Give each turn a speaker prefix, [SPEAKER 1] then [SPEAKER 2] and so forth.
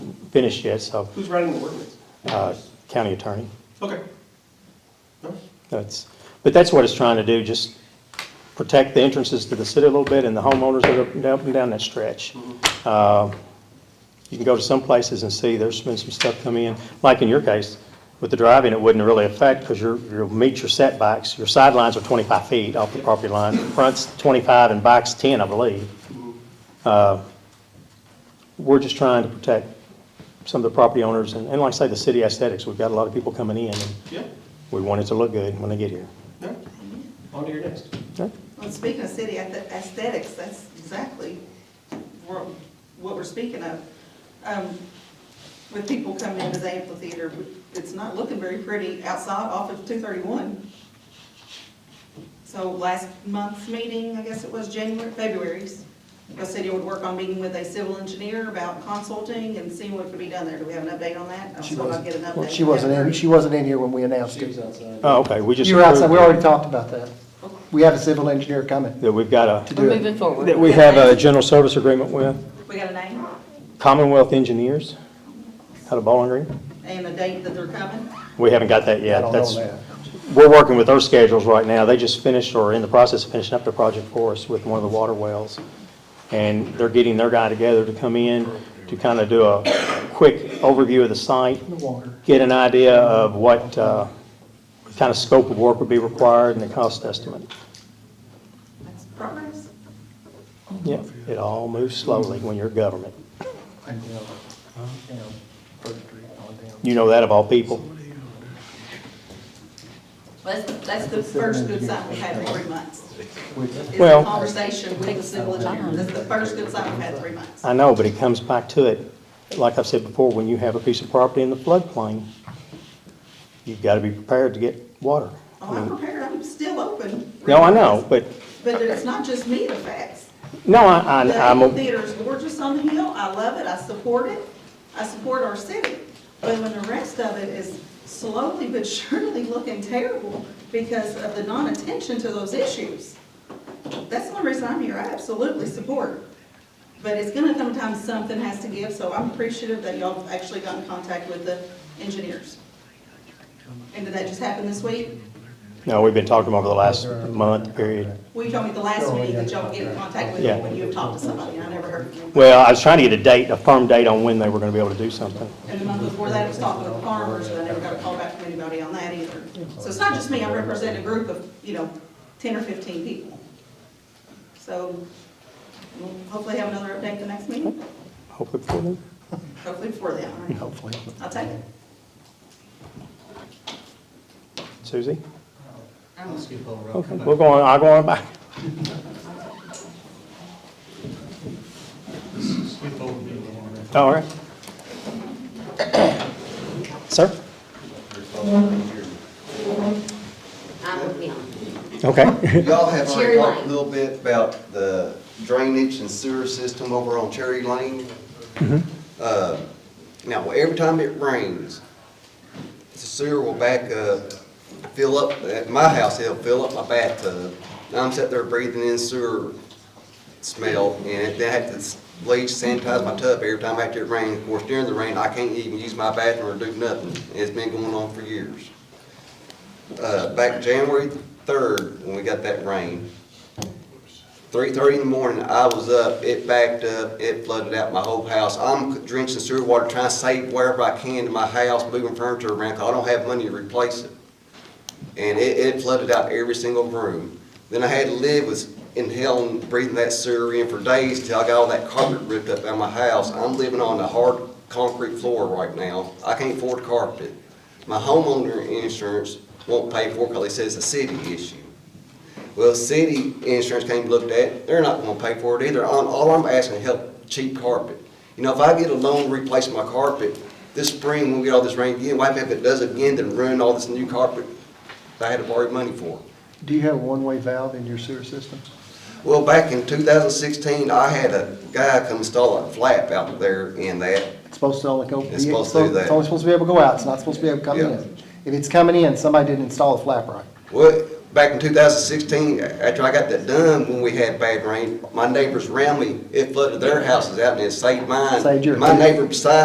[SPEAKER 1] finished yet, so,
[SPEAKER 2] Who's writing the ordinance?
[SPEAKER 1] uh, county attorney.
[SPEAKER 2] Okay. No?
[SPEAKER 1] That's, but that's what it's trying to do, just protect the entrances to the city a little bit and the homeowners that are up and down that stretch. Uh, You can go to some places and see, there's been some stuff come in, like in your case, with the driving, it wouldn't really affect because you're, you'll meet your setbacks. Your sidelines are 25 feet off the property line, front's 25 and back's 10, I believe. Uh, We're just trying to protect some of the property owners and, and like I say, the city aesthetics. We've got a lot of people coming in and
[SPEAKER 2] Yeah,
[SPEAKER 1] we want it to look good when they get here.
[SPEAKER 2] no? On to your next.
[SPEAKER 1] Okay.
[SPEAKER 3] Well, speaking of city ath- aesthetics, that's exactly wha- what we're speaking of. Um, When people come into the amphitheater, it's not looking very pretty outside off of 231. So last month's meeting, I guess it was January, February's, the city would work on meeting with a civil engineer about consulting and seeing what could be done there. Do we have an update on that? I'm
[SPEAKER 4] She
[SPEAKER 3] sure I'll
[SPEAKER 4] wasn't,
[SPEAKER 3] get an update.
[SPEAKER 4] well, she wasn't in, she wasn't in here when we announced
[SPEAKER 2] She
[SPEAKER 4] it.
[SPEAKER 2] was outside.
[SPEAKER 1] Oh, okay, we just.
[SPEAKER 4] You were outside, we already
[SPEAKER 1] approved
[SPEAKER 4] talked about that. We have a civil engineer coming.
[SPEAKER 1] That we've got
[SPEAKER 4] To
[SPEAKER 1] a,
[SPEAKER 4] do
[SPEAKER 5] We're
[SPEAKER 4] it.
[SPEAKER 5] moving forward.
[SPEAKER 1] that we have a general service agreement with
[SPEAKER 3] We got a name
[SPEAKER 1] Commonwealth Engineers out of Bowling Green.
[SPEAKER 3] and a date that they're coming?
[SPEAKER 1] We haven't got that yet.
[SPEAKER 4] I don't know
[SPEAKER 1] That's-
[SPEAKER 4] that.
[SPEAKER 1] We're working with their schedules right now. They just finished or are in the process of finishing up their project for us with one of the water wells. And they're getting their guy together to come in to kind of do a quick overview of the site,
[SPEAKER 4] The water.
[SPEAKER 1] get an idea of what uh, kind of scope of work would be required and the cost estimate.
[SPEAKER 3] That's progress.
[SPEAKER 1] Yeah, it all moves slowly when you're government.
[SPEAKER 4] I know. uh, You know, First Street on down.
[SPEAKER 1] You know that of all people.
[SPEAKER 3] Well, That's, that's the first good sign we've had in three months.
[SPEAKER 4] Which-
[SPEAKER 3] Is
[SPEAKER 1] Well-
[SPEAKER 3] the conversation with the civil engineer. That's the first good sign we've had in three months. Oh,
[SPEAKER 1] I know, but it comes back to it. Like I've said before, when you have a piece of property in the floodplain, you've got to be prepared to get water.
[SPEAKER 3] Oh, I'm prepared, I'm still open.
[SPEAKER 1] No, I know, but,
[SPEAKER 3] But it's not just me, the facts.
[SPEAKER 1] no, I,
[SPEAKER 3] The
[SPEAKER 1] I- I'm, a-
[SPEAKER 3] amphitheater's gorgeous on the hill, I love it, I support it, I support our city. But when the rest of it is slowly but surely looking terrible because of the non-attention to those issues, that's the only reason I'm here, I absolutely support. But it's gonna come a time something has to give, so I'm appreciative that y'all have actually got in contact with the engineers. And did that just happen this week?
[SPEAKER 1] no, we've been talking over the last month period.
[SPEAKER 3] Well, you told me the last week that y'all get in contact with them when you talked to somebody, and I never heard from you.
[SPEAKER 1] Well, I was trying to get a date, a firm date on when they were going to be able to do something.
[SPEAKER 3] And the month before that, I was talking with farmers, and I never got a call back from anybody on that either. So it's not just me, I represent a group of, you know, ten or fifteen people. So we'll hopefully have another update the next meeting,
[SPEAKER 1] Hopefully before then.
[SPEAKER 3] hopefully before then, all right?
[SPEAKER 4] Hopefully.
[SPEAKER 3] I'll take it.
[SPEAKER 1] Susie?
[SPEAKER 3] I don't-
[SPEAKER 1] Okay, we're going, I'll go on back. All right. Sir?
[SPEAKER 5] I'm with you.
[SPEAKER 1] Okay.
[SPEAKER 6] Y'all have already
[SPEAKER 5] Cherry
[SPEAKER 6] talked a
[SPEAKER 5] Lane.
[SPEAKER 6] little bit about the drainage and sewer system over on Cherry Lane. Uh, Now, every time it rains, the sewer will back up, fill up, at my house, it'll fill up my bathtub. And I'm sitting there breathing in sewer smell, and then I have to bleach, sanitize my tub every time after it rains. Of course, during the rain, I can't even use my bathroom or do nothing. It's been going on for years uh, back January third, when we got that rain, three thirty in the morning, I was up, it backed up, it flooded out my whole house. I'm drenching sewer water, trying to save wherever I can to my house, moving furniture around, 'cause I don't have money to replace it. And it, it flooded out every single room. Then I had to live with inhaling, breathing that sewer in for days till I got all that carpet ripped up out of my house. I'm living on the hard concrete floor right now. I can't afford carpet. My homeowner insurance won't pay for it because they says it's a city issue. Well, city insurance came looked at, they're not gonna pay for it either. All, all I'm asking is help cheap carpet. You know, if I get a loan to replace my carpet, this spring, when we get all this rain again, what if it does again, then ruin all this new carpet that I had to borrow money for?
[SPEAKER 4] Do you have a one-way valve in your sewer system?
[SPEAKER 6] Well, back in two thousand sixteen, I had a guy come install a flap out there in that.
[SPEAKER 4] It's supposed to only go.
[SPEAKER 6] It's supposed to do that.
[SPEAKER 4] It's only supposed to be able to go out, it's not supposed to be able to come
[SPEAKER 6] Yeah.
[SPEAKER 4] in. If it's coming in, somebody didn't install a flap right.
[SPEAKER 6] Well, back in two thousand sixteen, after I got that done, when we had bad rain, my neighbors around me, it flooded their houses out and it saved mine.
[SPEAKER 4] Saved yours.
[SPEAKER 6] My neighbor beside